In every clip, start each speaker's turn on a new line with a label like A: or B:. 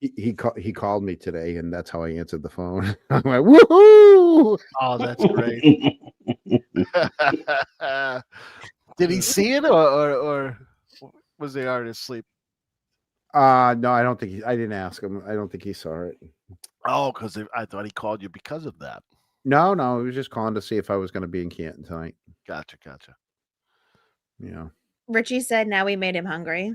A: He he, ca- he called me today, and that's how I answered the phone. I'm like, woohoo!
B: Oh, that's great. Did he see it, or, or or was they already asleep?
A: Uh no, I don't think he, I didn't ask him. I don't think he saw it.
B: Oh, because I thought he called you because of that.
A: No, no, he was just calling to see if I was going to be in Canton tonight.
B: Gotcha, gotcha.
A: You know,
C: Richie said, "Now we made him hungry."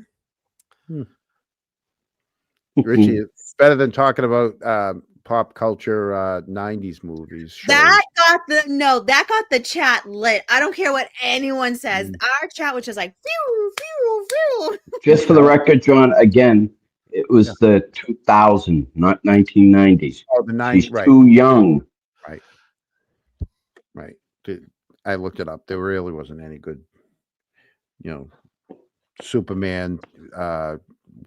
A: Richie, it's better than talking about uh, pop culture uh, '90s movies. shows.
C: That got the no. That got the chat lit. I don't care what anyone says.
A: Mm.
C: Our chat was just like, phew, phew, phew.
D: Just for the record, John, again, it was the 2000, not 1990s.
A: Oh, the
D: He's
A: '90s, right?
D: too young.
A: Right. Th- I looked it up. There really wasn't any good, you know, Superman, uh,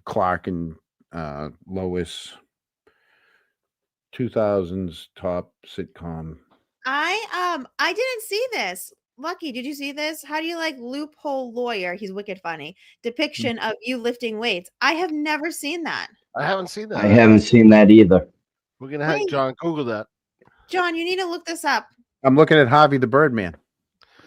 A: Clark and uh, Lois. 2000s top sitcom.
C: I um, I didn't see this. Lucky, did you see this? How do you like loophole lawyer? He's wicked funny. Depiction of you lifting weights. I have never seen that.
B: I haven't seen that.
D: I haven't seen that either.
B: We're gonna have
C: Wait.
B: John Google that.
C: John, you need to look this up.
A: I'm looking at Harvey the Birdman.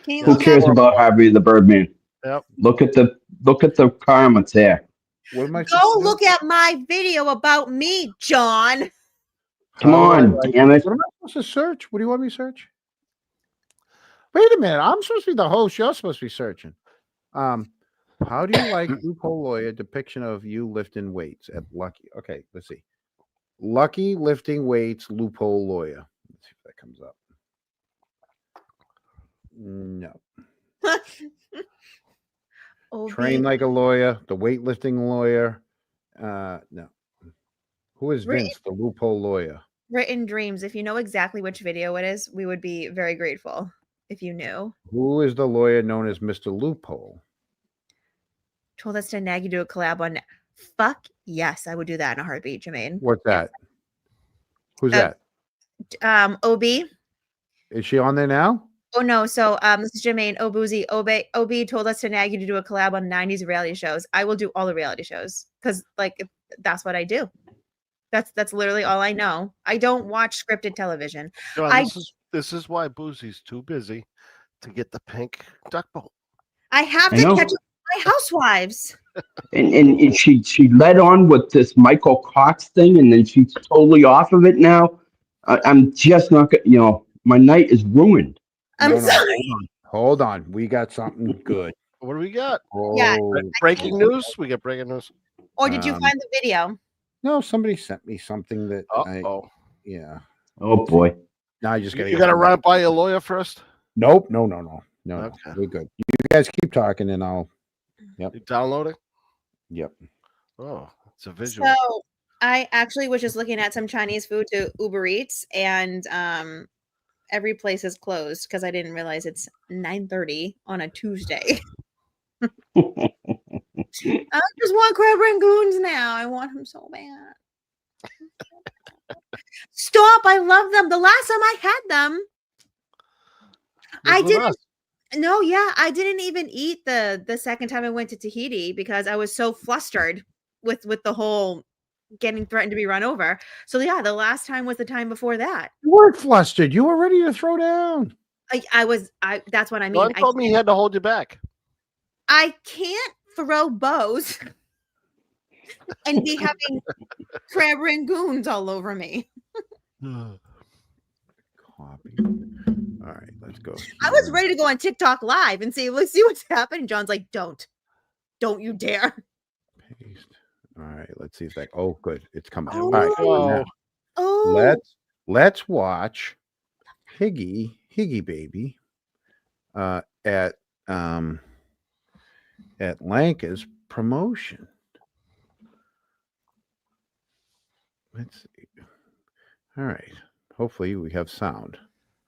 C: Can you
D: Who
C: look
D: cares
C: up?
D: about Harvey the Birdman?
B: Yep.
D: Look at the look at the comments there.
A: What am I? supposed
C: Go
A: to do?
C: look at my video about me, John.
A: How
D: Come
A: do I,
D: on,
A: like-
D: damn it.
A: What am I supposed to search? What do you want me to search? Wait a minute. I'm supposed to be the host. You're supposed to be searching. Um, how do you like loophole lawyer depiction of you lifting weights at Lucky? Okay, let's see. Lucky lifting weights, loophole lawyer. Let's see if that comes up. No.
C: Oh,
A: Train like a lawyer, the weightlifting lawyer. Uh no. Who is
C: Written-
A: Vince, the loophole lawyer?
C: written dreams. If you know exactly which video it is, we would be very grateful if you knew.
A: Who is the lawyer known as Mr. Loophole?
C: Told us to nag you do a collab on. Fuck yes, I would do that in a heartbeat, Jermaine.
A: What's that? Who's
C: Uh,
A: that?
C: Um, Ob.
A: Is she on there now?
C: Oh no, so um, this is Jermaine Obuzi. Ob Ob told us to nag you to do a collab on '90s reality shows. I will do all the reality shows because like it- that's what I do. That's that's literally all I know. I don't watch scripted television.
B: John,
C: I-
B: this is this is why Boozy's too busy to get the pink duck boat.
C: I have
D: I
C: to
D: know.
C: catch up with my housewives.
D: And, and and she she led on with this Michael Cox thing, and then she's totally off of it now. I, I'm just not gonna, you know, my night is ruined.
C: I'm
A: No, no,
C: sorry.
A: Hold on. We got something good.
B: What do we got?
A: Oh,
C: Yeah.
B: Breaking news. We got breaking news.
C: Or did you
A: Um,
C: find the video?
A: No, somebody sent me something that
B: Uh
A: I
B: oh.
A: yeah.
D: Oh boy,
A: Now I just
B: You,
A: gotta
B: you
A: get
B: gotta
A: somebody-
B: run it by your lawyer first.
A: Nope, no, no, no. No, no,
B: Okay.
A: we're good. You guys keep talking and I'll
B: You download it.
A: yep.
B: Oh, it's a visual.
C: So I actually was just looking at some Chinese food to Uber Eats, and um, every place is closed because I didn't realize it's nine thirty on a Tuesday. I just want crab rangoons now. I want them so bad. Stop! I love them. The last time I had them, I
B: Look at
C: didn't
B: us.
C: no, yeah, I didn't even eat the the second time I went to Tahiti because I was so flustered with with the whole getting threatened to be run over. So yeah, the last time was the time before that.
A: You weren't flustered. You were ready to throw down.
C: I, I was I that's what I mean.
B: John
C: I,
B: told me he had to hold you back.
C: I can't throw bows and be having crab rangoons all over me.
A: Copy. All right, let's go.
C: I was
A: here.
C: ready to go on TikTok live and see let's see what's happening. John's like, don't, don't you dare.
A: Paste. All right, let's see if that oh good. It's coming.
C: Oh,
A: All right.
B: Oh,
C: Oh
A: let's let's watch Higgy Higgy Baby uh, at um, at Lanka's promotion. Let's see. All right. Hopefully we have sound.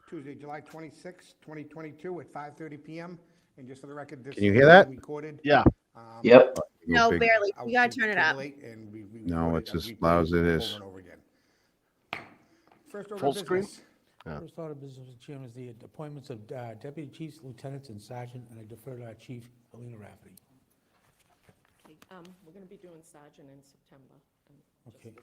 E: Tuesday, July 26, 2022, at 5:30 PM. And just for the record, this.
A: Can you hear that?
E: was Recorded.
B: Yeah.
E: Um,
D: yep.
A: Real
C: no,
A: big-
C: barely.
E: out
C: You gotta
E: to
C: turn it up.
E: Timberlake, and we- we
A: No,
E: recorded
A: it's
E: and
A: as
E: replayed
A: loud as it
E: over
A: is.
E: and over again. First order
B: Full
E: of
B: screen?
E: business.
B: Yeah.
F: First order of business, Mr. Chairman, is the appointments of uh, deputy chiefs, lieutenants, and sergeant, and I defer to our chief, Alina Rafferty.
G: Um, We're going to be doing Sergeant in September. and just
F: Okay.